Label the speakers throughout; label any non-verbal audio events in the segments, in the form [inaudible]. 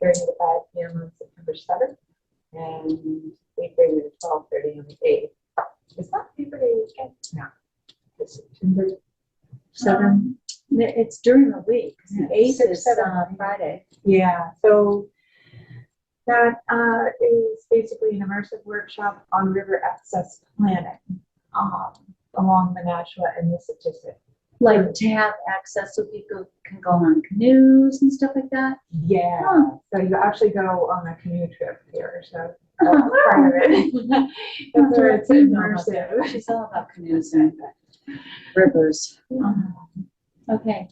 Speaker 1: thirty to five P M on September seventh, and eight thirty to twelve thirty on the eighth. Is that Labor Day weekend? No. It's September
Speaker 2: Seven, it's during the week, 'cause
Speaker 1: Yeah,
Speaker 2: the eighth
Speaker 1: six,
Speaker 2: is
Speaker 1: seven,
Speaker 2: uh, Friday.
Speaker 1: Yeah, so that uh, is basically an immersive workshop on river access planning um, along the Nashua and Mississippi.
Speaker 2: Like to have access so people can go on canoes and stuff like that.
Speaker 1: Yeah,
Speaker 2: Huh.
Speaker 1: so you actually go on a canoe trip here, so
Speaker 2: [laughs]
Speaker 1: that's
Speaker 2: Oh, wow.
Speaker 1: part of it. That's where [laughs] it's immersive.
Speaker 2: She's all about canoes and rivers.
Speaker 1: Um,
Speaker 2: Okay,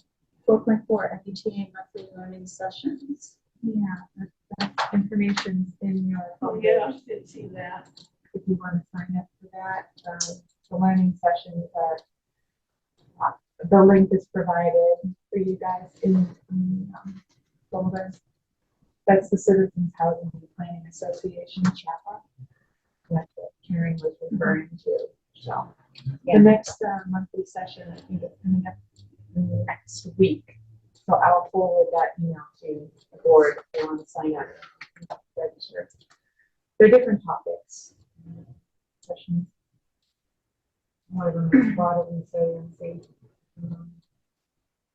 Speaker 2: four point four, MBTA monthly learning sessions.
Speaker 1: Yeah, that- that information's in your
Speaker 3: Oh,
Speaker 1: folder.
Speaker 3: yeah, I did see that.
Speaker 1: if you want to sign up for that. Um, The learning sessions are, uh, the link is provided for you guys in in, um, folder. That's the Citizens Housing and Planning Association chapter. That's what Karen was referring to, so. The next uh, monthly session, I think it's coming up next week. So I'll forward that email to the board if they want to sign up, register. They're different topics sessions. One of them is water resiliency. um,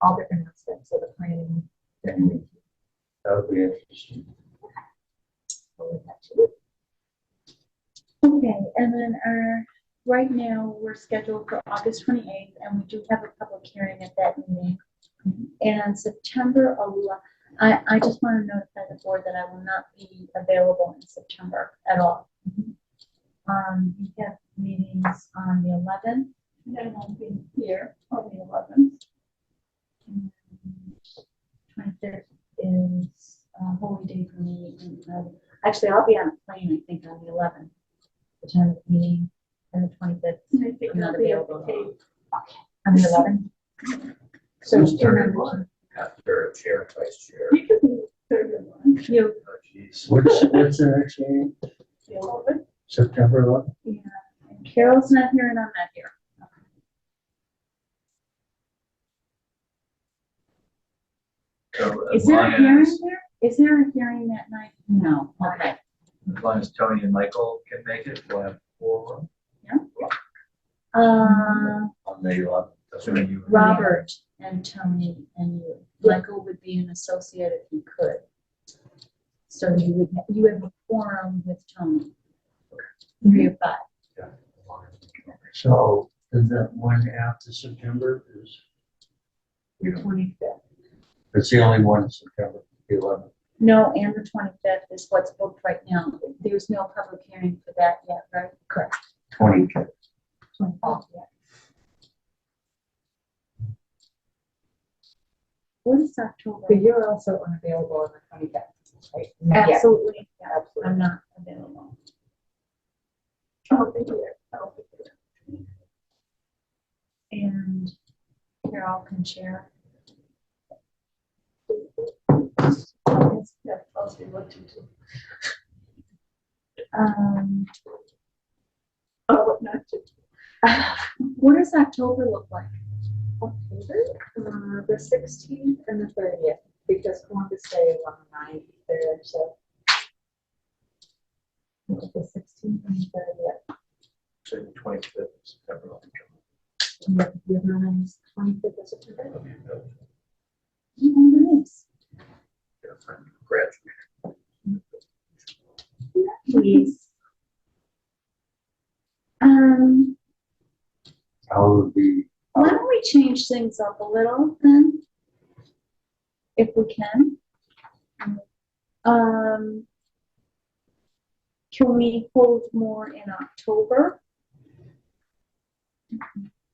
Speaker 1: All different aspects of the planning. that we
Speaker 4: That would be interesting.
Speaker 1: will have to do.
Speaker 2: Okay, and then our, right now, we're scheduled for August twenty-eighth, and we do have a public hearing at that meeting. And September eleven, I, I just want to notify the board that I will not be available in September at all. Um, we have meetings on the eleventh,
Speaker 3: And I won't be here on the eleventh.
Speaker 2: twenty-third is a holy day for me. and, um, Actually, I'll be on a plane, I think, on the eleventh, the time of the meeting, and the twenty-fifth.
Speaker 3: And I think
Speaker 2: I'm not
Speaker 3: I'll be
Speaker 2: available.
Speaker 3: okay.
Speaker 1: On the eleventh. So.
Speaker 4: Who's
Speaker 1: two
Speaker 4: third
Speaker 1: members.
Speaker 4: one? After chair, and vice chair.
Speaker 3: You can be third in line.
Speaker 2: You,
Speaker 4: Oh, jeez.
Speaker 5: What's, what's the next meeting?
Speaker 3: The eleventh.
Speaker 5: September eleventh?
Speaker 2: Yeah, and Carol's not here and I'm not here.
Speaker 4: So as
Speaker 2: Is there
Speaker 4: long
Speaker 2: a hearing
Speaker 4: as,
Speaker 2: there? Is there a hearing that night? No. Okay.
Speaker 4: as long as Tony and Michael can make it, we'll have four
Speaker 2: Uh,
Speaker 4: on the eleventh. Assuming you.
Speaker 2: Robert and Tony and you. Michael would be an associate if he could. So you would, ha- you have a forum with Tony. Three of five.
Speaker 5: So is that one after September is,
Speaker 1: Your twenty-fifth.
Speaker 5: it's the only one in September, the eleventh.
Speaker 2: No, and the twenty-fifth is what's booked right now. There's no public hearing for that yet, right? Correct.
Speaker 5: Twenty.
Speaker 2: What is
Speaker 1: So
Speaker 2: October?
Speaker 1: you're also unavailable on the twenty-fifth, right? Not yet.
Speaker 2: Absolutely, yeah,
Speaker 1: Absolutely.
Speaker 2: I'm not available.
Speaker 1: I don't think you are. I don't think you are.
Speaker 2: And Carol can share.
Speaker 3: Yeah, I'll see what to do.
Speaker 2: Um,
Speaker 3: Oh, what not to. [laughs]
Speaker 2: what does October look like?
Speaker 1: October, uh, the sixteenth and the thirtieth, because Columbus Day is on the ninth there, so. The sixteenth and thirtieth,
Speaker 4: So the twenty-fifth of September. I'll be coming.
Speaker 1: and the, the other one is twenty-fifth of September.
Speaker 4: That'll be good.
Speaker 2: Oh, nice.
Speaker 4: Get a friend to Graduate.
Speaker 2: Please. Um,
Speaker 5: How would be,
Speaker 2: why don't we change things up a little then? If we can. Um, can we hold more in October?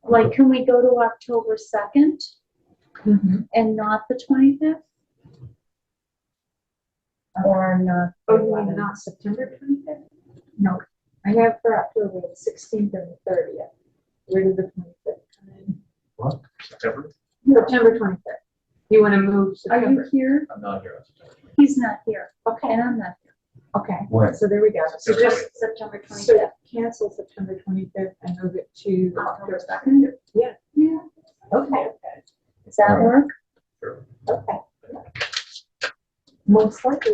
Speaker 2: Like, can we go to October second and not the twenty-fifth? Or not?
Speaker 1: Oh, you mean not September twenty-fifth? No, I have for October the sixteenth and the thirtieth. Where did the twenty-fifth come in?
Speaker 4: What? September?
Speaker 1: September twenty-fifth. You want to move
Speaker 2: Are you
Speaker 1: September?
Speaker 2: here?
Speaker 4: I'm not here on September.
Speaker 2: He's not here,
Speaker 1: Okay,
Speaker 2: and I'm not here.
Speaker 1: okay,
Speaker 5: what,
Speaker 1: so there we go. So
Speaker 4: September
Speaker 1: just
Speaker 2: September
Speaker 1: So cancel September twenty-fifth and move it to October
Speaker 2: October
Speaker 1: second? Yeah.
Speaker 2: Yeah.
Speaker 1: Okay,
Speaker 2: Does that
Speaker 5: Right.
Speaker 2: work?
Speaker 1: okay. Most likely